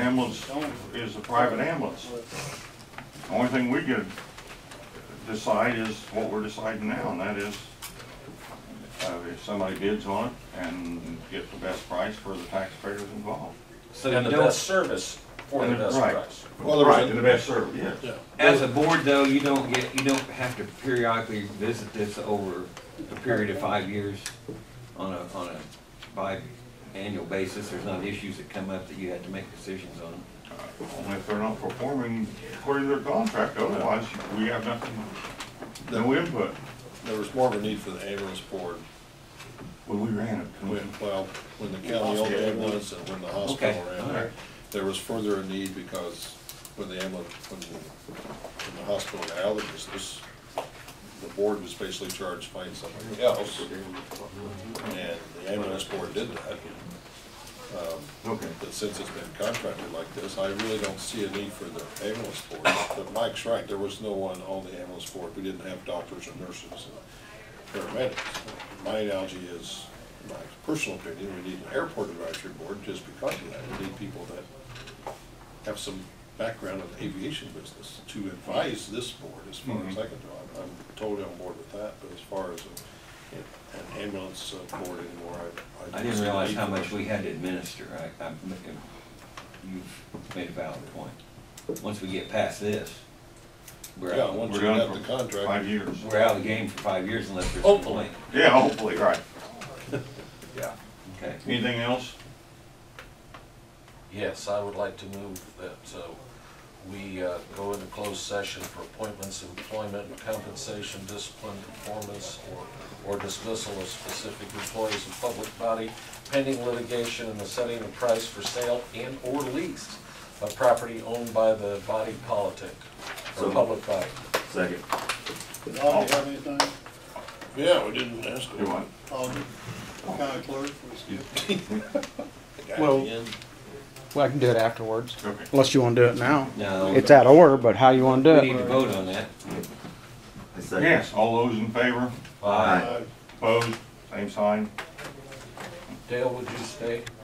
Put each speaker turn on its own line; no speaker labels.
ambulance is a private ambulance. The Only thing we could decide is what we're deciding now, and that is, uh, if somebody bids on it and get the best price for the taxpayers involved.
So
And
you
the
don't
best-
service for the
And the-
best
right.
price.
Well, there was
Right,
a-
and the best service, yes.
As a board though, you don't get, you don't have to periodically visit this over a period of five years on a, on a bi-annual basis. There's not issues that come up that you had to make decisions on.
Only if they're not performing according to their contract, otherwise we have nothing, no input.
there was more of a need for the ambulance board
When we ran it.
when, well, when the county owned the ambulance and when the hospital
Okay,
ran
all right.
it. There was further a need because when the ambulance, when the, when the hospital got out of the business, the board was basically charged finding somebody else. And the ambulance board did that.
Okay.
But since it's been contracted like this, I really don't see a need for the ambulance board. But Mike's right, there was no one on the ambulance board. We didn't have doctors and nurses and paramedics. My analogy is, my personal opinion, we need an airport advisory board just because of that. We need people that have some background in the aviation business to advise this board as far as I can do. I'm- I'm totally on board with that, but as far as a- an ambulance uh, board anymore, I.
I
don't
didn't
see a
realize
need
how
for
much
it.
we had to administer. I, I, you've made a valid point. Once we get past this, we're
Yeah,
out,
once
We're
you have
done
the
for
contract.
five years.
we're out of the game for five years unless there's a
Hopefully.
complaint.
Yeah, hopefully, right.
Yeah. Okay.
Anything else?
Yes, I would like to move that uh, we uh, go into closed session for appointments, employment, compensation, discipline, performance, or or dismissal of specific employees of public body, pending litigation and the setting of price for sale and/or lease of property owned by the body politic, or
So-
public body.
Second.
Paul, do you have anything?
Yeah, we didn't ask.
Do what?
Paul, do you- county clerk, we skip.
Well- Well, I can do it afterwards,
Okay.
unless you want to do it now.
No.
It's out of order, but how you want
We
to do
need
it?
to vote on that.
I second.
Yes, all those in favor?
Aye.
Opposed? Same sign?
Dale, would you stay?